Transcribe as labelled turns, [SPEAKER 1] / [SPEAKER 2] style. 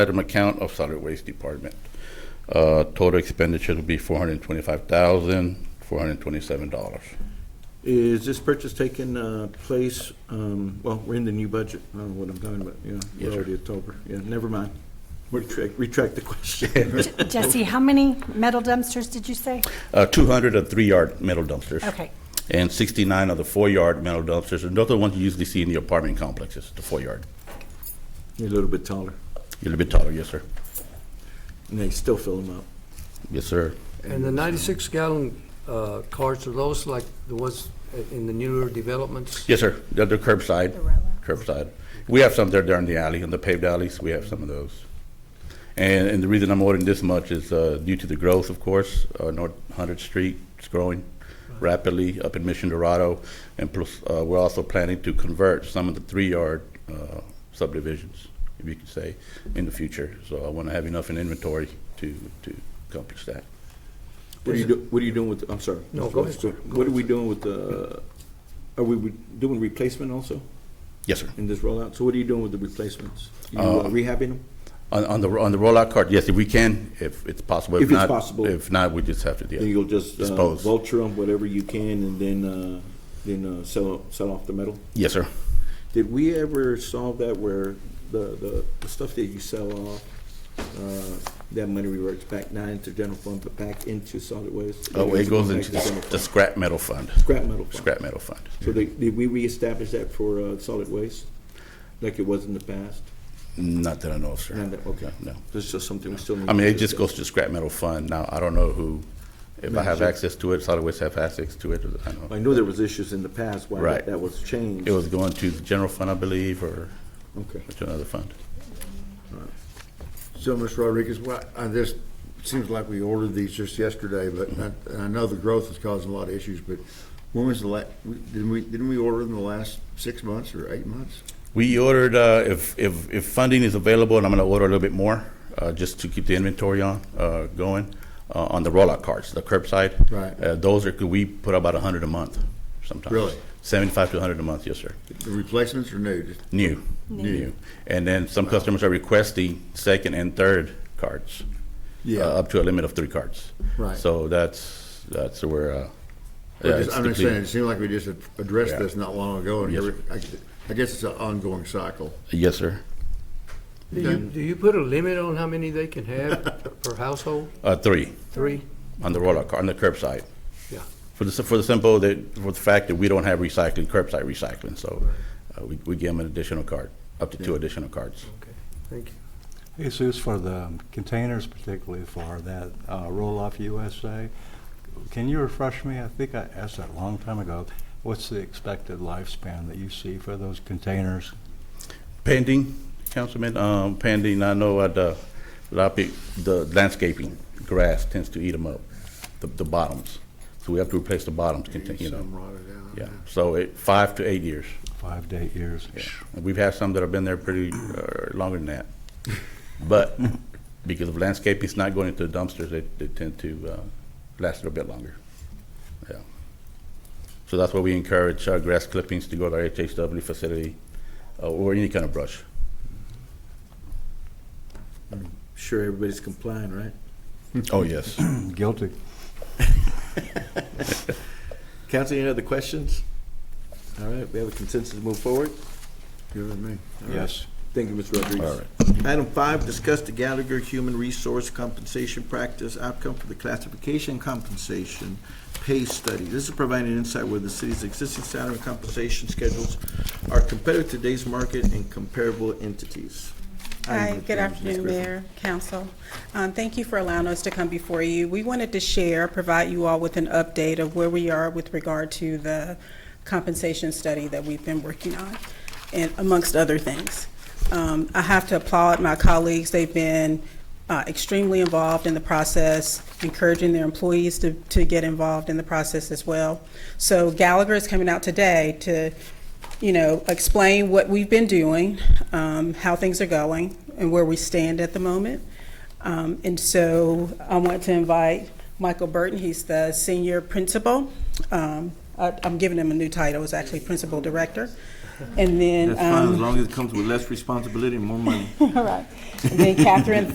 [SPEAKER 1] item account of solid waste department. Uh, Total expenditure will be four hundred and twenty-five thousand, four hundred and twenty-seven dollars.
[SPEAKER 2] Is this purchase taking uh, place, um, well, we're in the new budget, I don't know what I'm talking about, yeah,
[SPEAKER 1] Yes,
[SPEAKER 2] we're
[SPEAKER 1] sir.
[SPEAKER 2] already October, yeah, never mind. Retract, retract the question.
[SPEAKER 3] Jesse, how many metal dumpsters did you say?
[SPEAKER 1] Uh, Two hundred of three-yard metal dumpsters.
[SPEAKER 3] Okay,
[SPEAKER 1] And sixty-nine of the four-yard metal dumpsters, and those are the ones you usually see in the apartment complexes, the four-yard.
[SPEAKER 2] You're a little bit taller,
[SPEAKER 1] A little bit taller, yes, sir.
[SPEAKER 2] and they still fill them up.
[SPEAKER 1] Yes, sir.
[SPEAKER 4] And the ninety-six gallon uh, carts, are those like the ones i- in the newer developments?
[SPEAKER 1] Yes, sir. They're they're curbside.
[SPEAKER 3] The rollout.
[SPEAKER 1] Curbside. We have some there down the alley, in the paved alleys, we have some of those. And, and the reason I'm ordering this much is uh, due to the growth, of course, uh, North 100th Street is growing rapidly up in Mission Dorado. And plus, uh, we're also planning to convert some of the three-yard uh, subdivisions, if you could say, in the future. So I want to have enough in inventory to, to accomplish that.
[SPEAKER 2] What are you, do- what are you doing with, I'm sorry.
[SPEAKER 4] No,
[SPEAKER 2] Mr.
[SPEAKER 4] go
[SPEAKER 2] Lewis,
[SPEAKER 4] ahead.
[SPEAKER 2] What are we doing with the, are we re- doing replacement also
[SPEAKER 1] Yes, sir.
[SPEAKER 2] in this rollout? So what are you doing with the replacements? You uh,
[SPEAKER 1] Uh,
[SPEAKER 2] rehabbing them?
[SPEAKER 1] On, on the, on the rollout card, yes, if we can, if it's possible.
[SPEAKER 2] If it's
[SPEAKER 1] not-
[SPEAKER 2] possible.
[SPEAKER 1] If not, we just have to,
[SPEAKER 2] Then
[SPEAKER 1] yeah.
[SPEAKER 2] you'll just uh,
[SPEAKER 1] Dispose.
[SPEAKER 2] vulture them, whatever you can, and then, uh, then uh, sell, sell off the metal?
[SPEAKER 1] Yes, sir.
[SPEAKER 2] Did we ever solve that where the, the, the stuff that you sell off, uh, that money reverts back not into general fund, but back into solid waste?
[SPEAKER 1] Oh, it goes into
[SPEAKER 2] Back to general
[SPEAKER 1] the
[SPEAKER 2] fund.
[SPEAKER 1] scrap metal fund,
[SPEAKER 2] Scrap metal fund.
[SPEAKER 1] scrap metal fund.
[SPEAKER 2] So did, did we reestablish that for, uh, solid waste, like it was in the past?
[SPEAKER 1] Not that I know of, sir.
[SPEAKER 2] Not that- okay.
[SPEAKER 1] No.
[SPEAKER 2] This is just something we still need.
[SPEAKER 1] I mean,
[SPEAKER 2] to
[SPEAKER 1] it just
[SPEAKER 2] discuss.
[SPEAKER 1] goes to scrap metal fund. Now, I don't know who, if I have access to it, solid waste have access to it, I don't
[SPEAKER 2] I
[SPEAKER 1] know.
[SPEAKER 2] knew there was issues in the past why that,
[SPEAKER 1] Right.
[SPEAKER 2] that was changed.
[SPEAKER 1] It was going to the general fund, I believe, or
[SPEAKER 2] Okay.
[SPEAKER 1] to another fund.
[SPEAKER 5] So, Mr. Rodriguez, why- I this seems like we ordered these just yesterday, but I- and I know the growth is causing a lot of issues, but when was the la, didn't we, didn't we order in the last six months or eight months?
[SPEAKER 1] We ordered, uh, if, if, if funding is available, and I'm gonna order a little bit more, uh, just to keep the inventory on, uh, going, uh, on the rollout carts, the curbside.
[SPEAKER 5] Right.
[SPEAKER 1] Uh, those are, could we put about a hundred a month sometimes.
[SPEAKER 5] Really?
[SPEAKER 1] Seventy-five to a hundred a month, yes, sir.
[SPEAKER 5] The replacements are new? Just-
[SPEAKER 1] New. New. And then some customers are requesting second and third cards.
[SPEAKER 5] Yeah.
[SPEAKER 1] Uh, Up to a limit of three cards.
[SPEAKER 5] Right.
[SPEAKER 1] So that's, that's where, uh.
[SPEAKER 5] I
[SPEAKER 1] yeah,
[SPEAKER 5] just-
[SPEAKER 1] it's
[SPEAKER 5] I'm just
[SPEAKER 1] complete.
[SPEAKER 5] saying, it seemed like we just ad- addressed
[SPEAKER 1] Yeah.
[SPEAKER 5] this not long ago, and
[SPEAKER 1] Yes,
[SPEAKER 5] every- I I guess it's an ongoing cycle.
[SPEAKER 1] Yes, sir.
[SPEAKER 4] Do you, do you put a limit on how many they can have per household?
[SPEAKER 1] Uh, three
[SPEAKER 4] Three?
[SPEAKER 1] on the rollout car, on the curbside.
[SPEAKER 4] Yeah.
[SPEAKER 1] For the, for the simple, that, for the fact that we don't have recycling, curbside recycling, so, uh, we, we give them an additional card, up to two additional cards.
[SPEAKER 4] Okay, thank you.
[SPEAKER 6] It's used for the containers particularly for that uh, roll-off USA. Can you refresh me? I think I asked that a long time ago. What's the expected lifespan that you see for those containers?
[SPEAKER 1] Pending, Councilman, um, pending, I know at the, Lopi- the landscaping, grass tends to eat them up, the, the bottoms. So we have to replace the bottoms, contain- you
[SPEAKER 5] Some
[SPEAKER 1] know,
[SPEAKER 5] rotted out.
[SPEAKER 1] yeah, so it, five to eight years.
[SPEAKER 6] Five to eight years?
[SPEAKER 1] Yeah. And We've had some that have been there pretty, uh, longer than that. But because of landscaping, it's not going into the dumpsters, they, they tend to, uh, last a little bit longer. Yeah. So that's why we encourage, uh, grass clippings to go to our HHW facility, uh, or any kind of brush.
[SPEAKER 2] Sure, everybody's complying, right?
[SPEAKER 1] Oh, yes.
[SPEAKER 6] Guilty.
[SPEAKER 2] Council, any other questions? All right, we have a consensus to move forward.
[SPEAKER 5] Good with me.
[SPEAKER 6] Yes.
[SPEAKER 2] Thank you, Mr. Rodriguez. Item five, discuss the Gallagher Human Resource Compensation Practice Outcome for the Classification Compensation Pay Study. This is providing insight where the city's existing salary and compensation schedules are competitive to today's market and comparable entities.
[SPEAKER 7] Hi,
[SPEAKER 2] Item number three,
[SPEAKER 7] good
[SPEAKER 2] Ms.
[SPEAKER 7] afternoon,
[SPEAKER 2] Griffin.
[SPEAKER 7] Mayor, Council. Um, Thank you for allowing us to come before you. We wanted to share, provide you all with an update of where we are with regard to the compensation study that we've been working on, and amongst other things. Um, I have to applaud my colleagues. They've been uh, extremely involved in the process, encouraging their employees to, to get involved in the process as well. So Gallagher is coming out today to you know, explain what we've been doing, um, how things are going, and where we stand at the moment. Um, and so I want to invite Michael Burton, he's the senior principal. Um, I, I'm giving him a new title, it's actually principal director. And then,
[SPEAKER 2] That's fine, as
[SPEAKER 7] um,
[SPEAKER 2] long as it comes with less responsibility and more money.
[SPEAKER 7] all right. And then Catherine